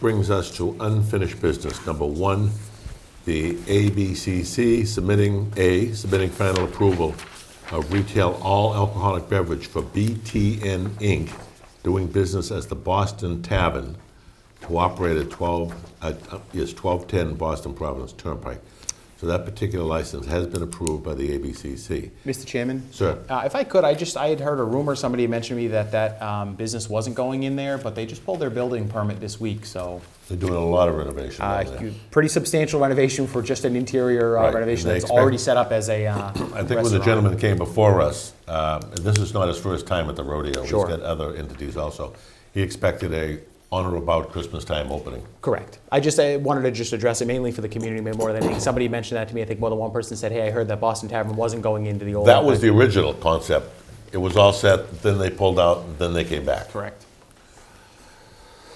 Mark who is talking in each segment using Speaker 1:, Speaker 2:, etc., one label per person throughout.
Speaker 1: Brings us to unfinished business. Number one, the ABCC submitting, A, submitting final approval of retail all alcoholic beverage for BTN Inc., doing business as the Boston Tavern, to operate at 12, at, uh, yes, 1210 Boston Providence Turnpike. So that particular license has been approved by the ABCC.
Speaker 2: Mr. Chairman?
Speaker 1: Sir?
Speaker 2: Uh, If I could, I just, I had heard a rumor, somebody mentioned to me that that um, business wasn't going in there, but they just pulled their building permit this week, so
Speaker 1: They're doing a lot of renovation
Speaker 2: uh,
Speaker 1: down there.
Speaker 2: you- pretty substantial renovation for just an interior
Speaker 1: Right,
Speaker 2: uh,
Speaker 1: and
Speaker 2: renovation
Speaker 1: they
Speaker 2: that's
Speaker 1: expect-
Speaker 2: already set up as a uh,
Speaker 1: I think when the
Speaker 2: restaurant.
Speaker 1: gentleman came before us, uh, this is not his first time at the rodeo.
Speaker 2: Sure.
Speaker 1: He's got other entities also. He expected a on or about Christmas time opening.
Speaker 2: Correct. I just I wanted to just address it mainly for the community more than anything. Somebody mentioned that to me. I think more than one person said, "Hey, I heard that Boston Tavern wasn't going into the old."
Speaker 1: That was the original concept. It was all set, then they pulled out, and then they came back.
Speaker 2: correct.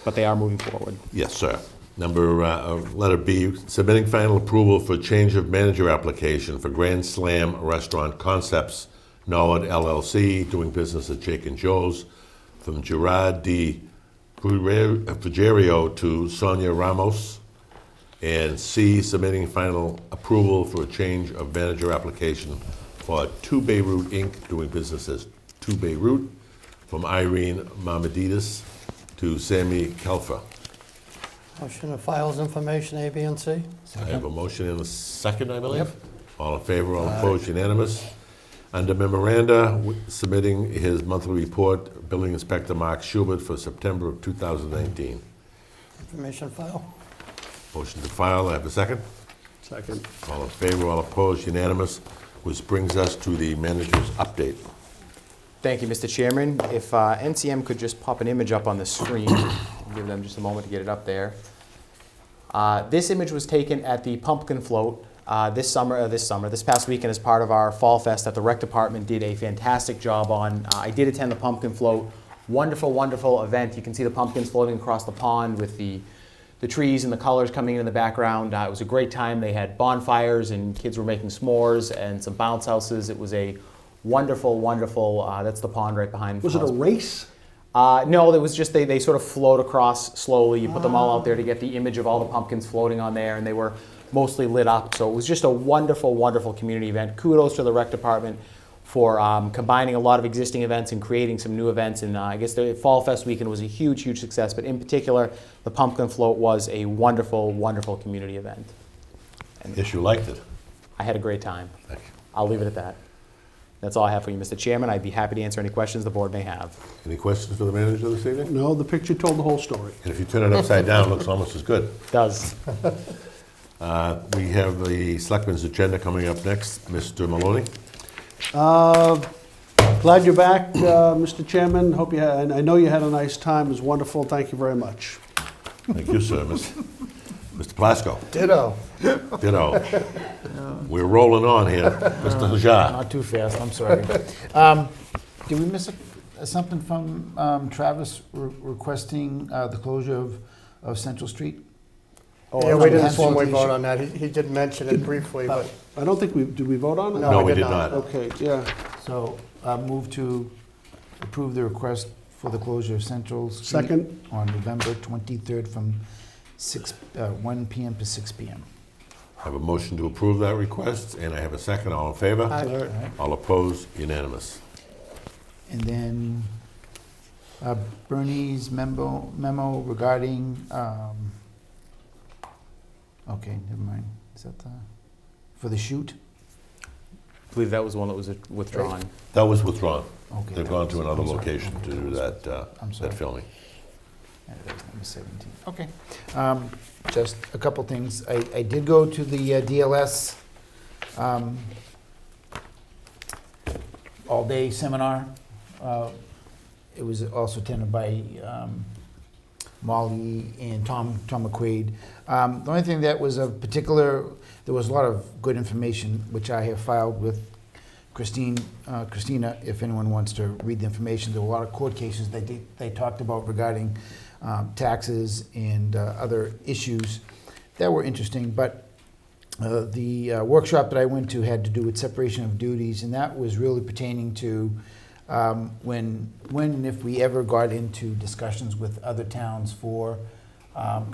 Speaker 2: But they are moving forward.
Speaker 1: Yes, sir. Number, uh, uh, letter B, submitting final approval for change of manager application for Grand Slam Restaurant Concepts, Norwood LLC, doing business at Jake and Joe's, from Gerard D. Fugerio to Sonia Ramos. And C, submitting final approval for a change of manager application for Two Beirut Inc., doing business as Two Beirut, from Irene Mamadidis to Sammy Kelfer.
Speaker 3: Motion to files information, A, B, and C.
Speaker 1: I have a motion and a second, I believe. All in favor, all opposed, unanimous. Under memoranda, w- submitting his monthly report, Building Inspector Mark Schubert for September of 2019.
Speaker 3: Information file.
Speaker 1: Motion to file, I have a second.
Speaker 4: Second.
Speaker 1: All in favor, all opposed, unanimous, which brings us to the manager's update.
Speaker 2: Thank you, Mr. Chairman. If uh, NCM could just pop an image up on the screen, give them just a moment to get it up there. Uh, This image was taken at the Pumpkin Float uh, this summer, uh, this summer, this past weekend as part of our Fall Fest that the Rec Department did a fantastic job on. Uh, I did attend the Pumpkin Float. Wonderful, wonderful event. You can see the pumpkins floating across the pond with the, the trees and the colors coming in in the background. Uh, It was a great time. They had bonfires and kids were making s'mores and some bounce houses. It was a wonderful, wonderful, uh, that's the pond right behind.
Speaker 4: Was it a
Speaker 2: Fall's-
Speaker 4: race?
Speaker 2: uh, no, there was just they, they sort of float across slowly. You put them all out there to get the image of all the pumpkins floating on there, and they were mostly lit up. So it was just a wonderful, wonderful community event. Kudos to the rec department for um, combining a lot of existing events and creating some new events. And uh, I guess the Fall Fest weekend was a huge, huge success. But in particular, the pumpkin float was a wonderful, wonderful community event.
Speaker 1: Yes, you liked it.
Speaker 2: I had a great time.
Speaker 1: Thank you.
Speaker 2: I'll leave it at that. That's all I have for you, Mr. Chairman. I'd be happy to answer any questions the board may have.
Speaker 1: Any questions for the manager this evening?
Speaker 4: No, the picture told the whole story.
Speaker 1: And if you turn it upside down, it looks almost as good.
Speaker 2: Does.
Speaker 1: Uh, We have the selectmen's agenda coming up next. Mr. Maloney?
Speaker 4: Uh, Glad you're back, uh, Mr. Chairman. Hope you, had, I know you had a nice time. It was wonderful. Thank you very much.
Speaker 1: Thank you, sir. Miss- Mr. Plasko?
Speaker 5: Ditto.
Speaker 1: Ditto. We're rolling on here, Mr. Hajar.
Speaker 5: Not too fast, I'm sorry. Um, Did we miss a- something from um, Travis re- requesting uh, the closure of, of Central Street?
Speaker 3: Yeah, we didn't
Speaker 5: that's-
Speaker 3: formally vote on that. He he did mention it briefly, but
Speaker 4: I don't think we, did we vote on it?
Speaker 3: No,
Speaker 1: No,
Speaker 3: we
Speaker 1: we
Speaker 3: did
Speaker 1: did
Speaker 3: not.
Speaker 1: not.
Speaker 4: Okay, yeah.
Speaker 5: So I move to approve the request for the closure of Central Street.
Speaker 4: Second.
Speaker 5: On November 23rd from 6, uh, 1 PM to 6 PM.
Speaker 1: I have a motion to approve that request, and I have a second. All in
Speaker 3: Aye.
Speaker 1: favor?
Speaker 5: All right.
Speaker 1: All opposed? Unanimous.
Speaker 5: And then uh, Bernie's memo, memo regarding, um, okay, never mind. Is that the, for the shoot?
Speaker 2: I believe that was one that was withdrawn.
Speaker 1: That was withdrawn.
Speaker 5: Okay.
Speaker 1: They've
Speaker 5: that
Speaker 1: gone
Speaker 5: was-
Speaker 1: to another
Speaker 5: I'm sorry.
Speaker 1: location to do that, uh,
Speaker 5: I'm
Speaker 1: that
Speaker 5: sorry.
Speaker 1: filming.
Speaker 5: And that was number 17. Okay. Um, Just a couple things. I, I did go to the uh, DLS um, all-day seminar. Uh, It was also attended by um, Molly and Tom, Tom McQuaid. Um, The only thing that was of particular, there was a lot of good information, which I have filed with Christine, uh, Christina, if anyone wants to read the information. There were a lot of court cases that they, they talked about regarding um, taxes and uh, other issues that were interesting. But uh, the uh, workshop that I went to had to do with separation of duties, and that was really pertaining to um, when, when and if we ever got into discussions with other towns for um,